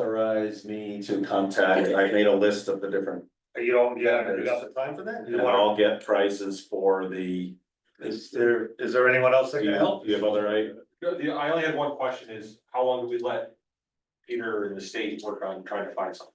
authorize me to contact, I made a list of the different, You don't, you haven't, you got the time for that? You and wanna- I'll get prices for the. Is there, is there anyone else that Do can you help? do you have other, right? No, the, I only had one question is, how long do we let Peter and the state work on trying to find something?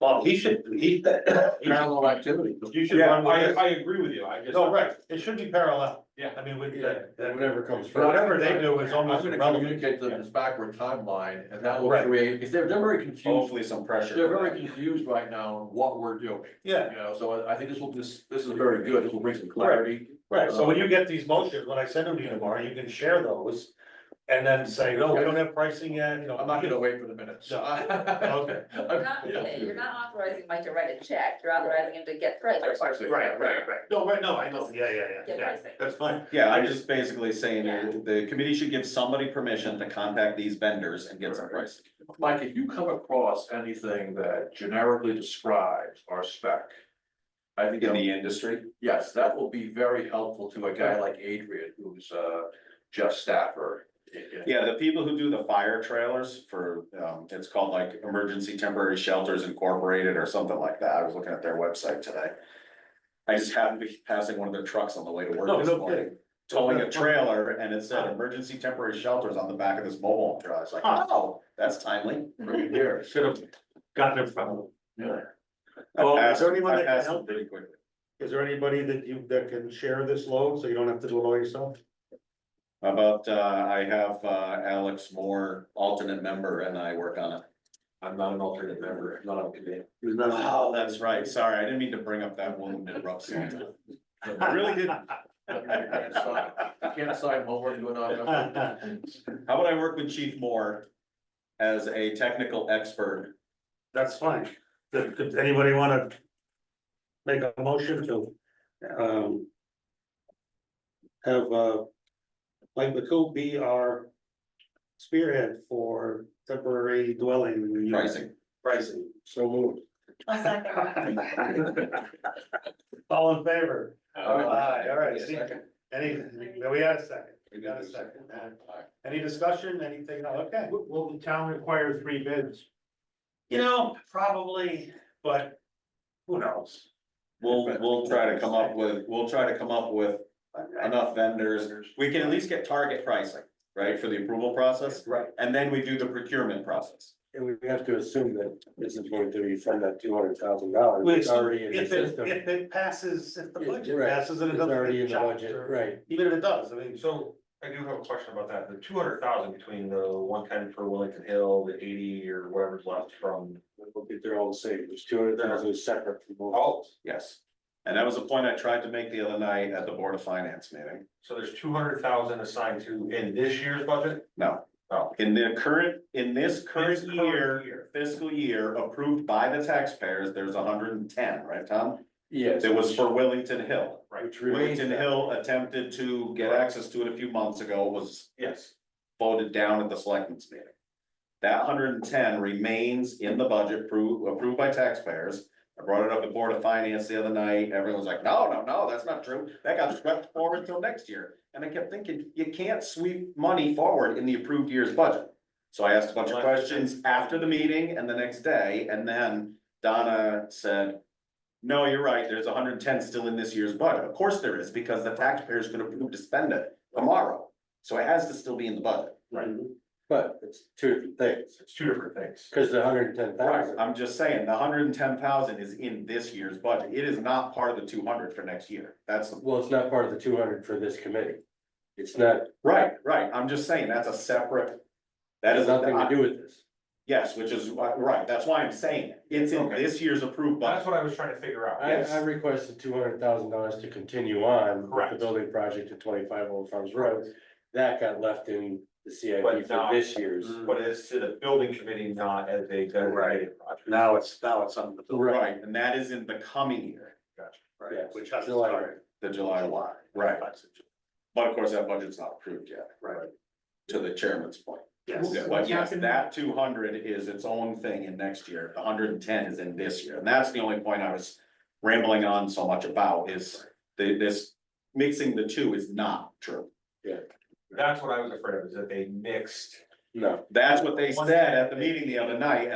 Well, he should, he, he should- Parallel activity. you should Yeah, run I, with it. I agree with you, I just. No, right, it should be parallel. Yeah. I mean, with Yeah. that, that- Whatever comes first. whatever they do is I'm almost gonna irrelevant. communicate to them this backward timeline and that will Right. create, because they're, they're very confused. Hopefully some pressure. They're very confused right now on what we're doing, Yeah, you know, so I, I think this will, this, this is very good. This will bring some clarity. right, Uh, so when you get these motions, when I send them to you tomorrow, you can share those. And then say, no, we don't have pricing yet, you know. I'm not gonna wait for the minutes. No. Okay. You're not, you're not authorizing Mike to write a check, you're authorizing him to get I prices, was actually- No, right, no, I know, yeah, yeah, yeah, get yeah, pricing. that's fine. Yeah, I'm just basically saying that the committee should give somebody permission to contact these vendors and get some prices. Mike, if you come across anything that generically describes our spec. I think, In that- the industry, yes, that will be very helpful to a guy like Adrian, who's, uh, Jeff Stafford. in- in- yeah, the people who do the fire trailers for, um, it's called like Emergency Temporary Shelters Incorporated or something like that, I was looking at their website today. I just happened to be passing one of their trucks on the way to No, work this Oh, no morning. kidding. towing a trailer and it said emergency temporary shelters on the back of this mobile home trailer. I was like, oh, that's timely. Right here. Should have gotten it from them. Yeah. I Well, is passed- there anyone I that can passed it help? Pretty quickly. Is there anybody that you, that can share this load, so you don't have to do it all yourself? How About, uh, I have, uh, Alex Moore, alternate member, and I work on it. I'm not an alternate member, I'm not on committee. Who's not- Oh, that's right. Sorry, I didn't mean to bring up that wound in rough salt. I really didn't. Can't assign- Can't assign homework to Uh, another. How about I work with Chief Moore as a technical expert? That's fine. Does, does anybody wanna make a motion to, um, have, uh, Mike McCool be our spearhead for temporary dwelling unit Pricing. Pricing. So moved. I'll second that. All in favor? Uh, Aye, all right. See, Second. Any, we had a second. We got a second. Any discussion, anything? Oh, Okay. Will the town require three bids? You know, probably, but who knows? We'll, we'll try to come up with, we'll try to come up with enough vendors We can at least get target pricing, right, for the approval process, Right, and then we do the procurement process. And we have to assume that this is going to be from that two hundred thousand dollars. Well, It's already in the if it, system. if it passes, if the Yeah, budget right. passes and it It's doesn't. already get in the chopped, budget, or- right. Even if it does, I mean, so So I do have a question about that, the two hundred thousand between the one ten for Wellington Hill, the eighty or whatever's left from. Look at their own savings, two hundred thousand is separate from all. Oh, Yes. And that was a point I tried to make the other night at the Board of Finance meeting. so there's two hundred thousand assigned to in this year's budget? No. Oh. In the current, in this current This year, fiscal year approved by the taxpayers, there's hundred and ten, right, Tom? Yes. It was for Willington Hill. Right, Which remains. Willington Hill attempted to get access to it a few months ago, was yes, voted down at the selectmen's meeting. That hundred and ten remains in the budget approved, approved by taxpayers. I brought it up at Board of Finance the other night, everyone was like, no, no, no, that's not true, that got swept forward until next year. And I kept thinking, you can't sweep money forward in the approved year's budget. So I asked a bunch of questions after the meeting and the next day, and then Donna said. No, you're right, there's hundred and ten still in this year's budget, of course there is, because the taxpayers could approve to spend it tomorrow. So it has to still be in the budget. But it's two different things, it's two different things. because the hundred and ten thousand. I'm just saying, the hundred and ten thousand is in this year's budget, it is not part of the two hundred for next year, that's, the- Well, it's not part of the two hundred for this committee. It's not, right, right, I'm just saying, that's a separate. That has is, nothing to do with this. yes, which is, why- right, that's why I'm saying, it. it's in Okay. this year's approved That's budget, what I was trying to figure out. I, I requested two hundred thousand dollars to continue on with the Correct. building project at twenty-five Old Farms Road. That got left in the CIP But for not- this year's. Mm, But it's to the building committee, not as a designated project. now it's, now it's something. to- Right. right, and that is in the coming year, Right, Yes. which hasn't July. started. the July one. Right, but of course, that budget's not approved yet, Right, to the chairman's point. yes. Yeah, But yes, that two hundred is its own thing in next year, the hundred and ten is in this year, and that's the only point I was rambling on so much about is the, this mixing the two is not true. That's what I was afraid of, is that they mixed No. That's what they said at the meeting the other night,